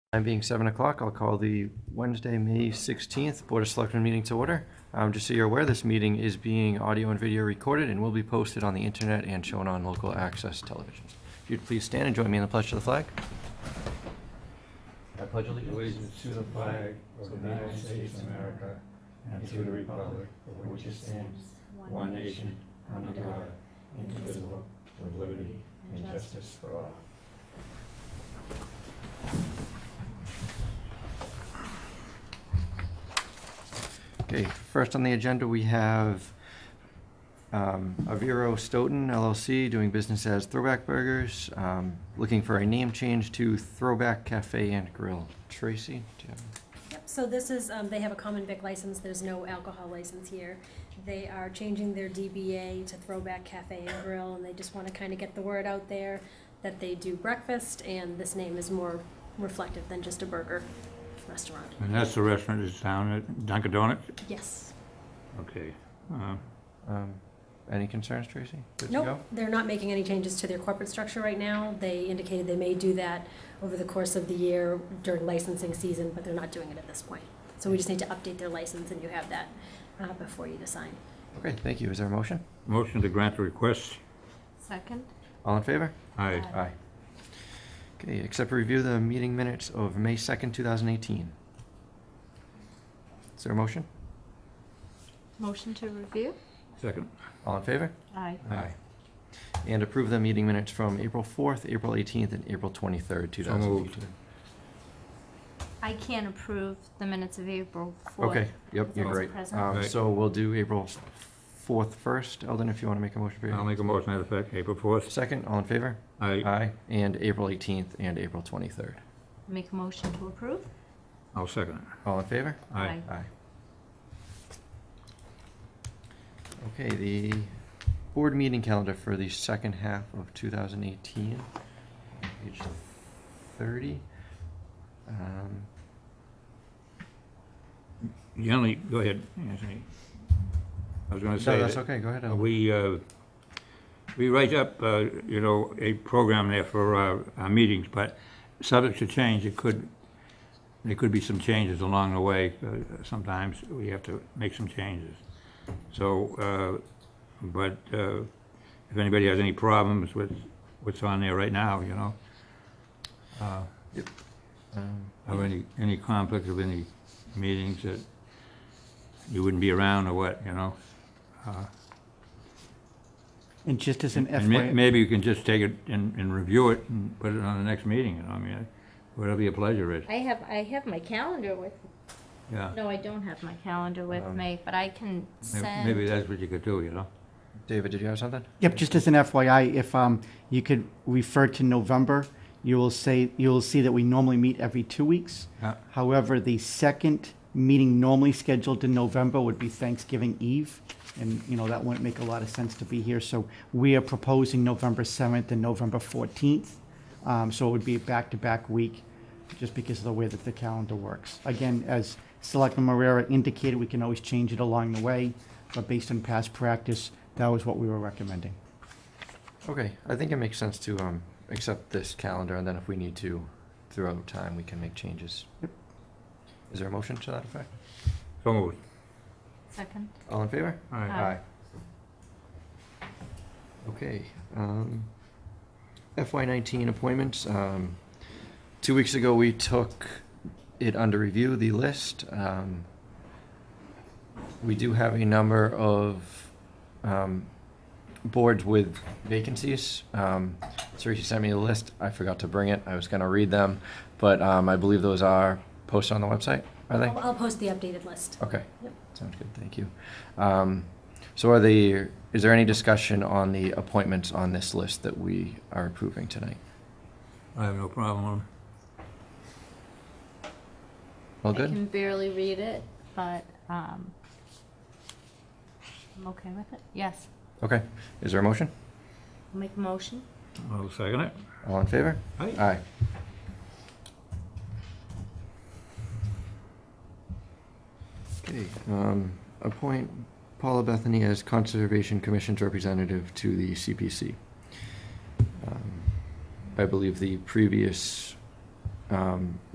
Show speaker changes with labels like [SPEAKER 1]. [SPEAKER 1] Time being 7 o'clock, I'll call the Wednesday, May 16th Board of Selectmen meeting to order. Um, Just so you're aware, this meeting is being audio and video recorded and will be posted on the internet and shown on local access television. If you'd please stand and join me in the pledge to the flag. I pledge
[SPEAKER 2] allegiance to the flag of the United States of America and to the republic for which it stands, one nation, under God, indivisible, with liberty and justice for all.
[SPEAKER 1] Okay, first on the agenda, we have um, Aviro Stoughton LLC doing business as Throwback Burgers, um, looking for a name change to Throwback Cafe and Grill. Tracy, do you have?
[SPEAKER 3] Yep, so this is, um, they have a common vic license, there's no alcohol license here. They are changing their DBA to Throwback Cafe and Grill, and they just wanna kinda get the word out there that they do breakfast, and this name is more reflective than just a burger restaurant.
[SPEAKER 2] And that's the restaurant that's down at Dunkin' Donuts?
[SPEAKER 3] Yes.
[SPEAKER 2] Okay. Uh,
[SPEAKER 1] Um, any concerns, Tracy? Good to
[SPEAKER 3] Nope,
[SPEAKER 1] go?
[SPEAKER 3] they're not making any changes to their corporate structure right now. They indicated they may do that over the course of the year during licensing season, but they're not doing it at this point. So we just need to update their license, and you have that, uh, before you decide.
[SPEAKER 1] Okay, thank you. Is there a motion?
[SPEAKER 2] Motion to grant the request.
[SPEAKER 3] Second?
[SPEAKER 1] All in favor?
[SPEAKER 2] Aye.
[SPEAKER 3] Aye.
[SPEAKER 1] Okay, accept or review the meeting minutes of May 2nd, 2018. Is there a motion?
[SPEAKER 4] Motion to review?
[SPEAKER 2] Second.
[SPEAKER 1] All in favor?
[SPEAKER 4] Aye.
[SPEAKER 2] Aye.
[SPEAKER 1] And approve the meeting minutes from April 4th, April 18th, and April 23rd,
[SPEAKER 2] So moved.
[SPEAKER 1] 2018.
[SPEAKER 4] I can't approve the minutes of April 4th.
[SPEAKER 1] Okay, yep, you're
[SPEAKER 4] As
[SPEAKER 1] right.
[SPEAKER 4] present.
[SPEAKER 1] Um,
[SPEAKER 2] Right.
[SPEAKER 1] So we'll do April 4th first. Eldon, if you want to make a motion for
[SPEAKER 2] I'll
[SPEAKER 1] your
[SPEAKER 2] make a motion to that effect, April 4th.
[SPEAKER 1] second, all in favor?
[SPEAKER 2] Aye.
[SPEAKER 1] Aye. And April 18th and April 23rd.
[SPEAKER 4] Make a motion to approve?
[SPEAKER 2] I'll second it.
[SPEAKER 1] All in favor?
[SPEAKER 2] Aye.
[SPEAKER 1] Aye. Okay, the board meeting calendar for the second half of 2018, page 30. Um,
[SPEAKER 2] Generally, go ahead, Anthony. I was going to say
[SPEAKER 1] No,
[SPEAKER 2] that...
[SPEAKER 1] that's okay, go ahead.
[SPEAKER 2] Uh,
[SPEAKER 1] Ellen.
[SPEAKER 2] We, uh, we write up, uh, you know, a program there for our, our meetings, but subject to change, it could, there could be some changes along the way. Uh, Sometimes we have to make some changes. So, uh, but uh, if anybody has any problems with what's on there right now, you know, uh,
[SPEAKER 1] Um,
[SPEAKER 2] or any, any conflict of any meetings that you wouldn't be around or what, you know? uh,
[SPEAKER 5] And just as an
[SPEAKER 2] And may-
[SPEAKER 5] FYI,
[SPEAKER 2] Maybe you can just take it and, and review it and put it on the next meeting, you know, I mean, whatever your pleasure is,
[SPEAKER 4] I have, I have my calendar with,
[SPEAKER 2] yeah.
[SPEAKER 4] no, I don't have my calendar with
[SPEAKER 1] Um,
[SPEAKER 4] me, but I can
[SPEAKER 2] May-
[SPEAKER 4] send.
[SPEAKER 2] Maybe that's what you could do, you know?
[SPEAKER 1] David, did you have something?
[SPEAKER 5] yep, just as an FYI, if um, you could refer to November, you will say, you will see that we normally meet every two weeks.
[SPEAKER 2] Yeah.
[SPEAKER 5] However, the second meeting normally scheduled in November would be Thanksgiving Eve. And, you know, that wouldn't make a lot of sense to be here. So we are proposing November 7th and November 14th. Um, So it would be a back-to-back week, just because of the way that the calendar works. Again, as Selectman Marrera indicated, we can always change it along the way, but based on past practice, that was what we were recommending.
[SPEAKER 1] Okay, I think it makes sense to um, accept this calendar, and then if we need to, throughout time, we can make changes. Is there a motion to that effect?
[SPEAKER 2] So moved.
[SPEAKER 4] Second?
[SPEAKER 1] All in favor?
[SPEAKER 2] All right.
[SPEAKER 4] Aye.
[SPEAKER 1] Okay, um, FY nineteen appointments, um, two weeks ago, we took it under review, the list, um, we do have a number of, um, boards with vacancies, um, Teresa sent me a list, I forgot to bring it, I was gonna read them, but, um, I believe those are posted on the website, are they?
[SPEAKER 3] I'll, I'll post the updated list.
[SPEAKER 1] Okay.
[SPEAKER 3] Yep.
[SPEAKER 1] Sounds good, thank you. Um, So are the, is there any discussion on the appointments on this list that we are approving tonight?
[SPEAKER 2] I have no problem.
[SPEAKER 1] All
[SPEAKER 4] I
[SPEAKER 1] good?
[SPEAKER 4] can barely read it, but, um, I'm okay with it, yes.
[SPEAKER 1] Okay, is there a motion?
[SPEAKER 4] Make a motion?
[SPEAKER 2] I'll second it.
[SPEAKER 1] All in favor?
[SPEAKER 2] Aye.
[SPEAKER 1] Aye. Okay, um, appoint Paula Bethany as Conservation Commission's representative to the CPC. Um, I believe the previous, um,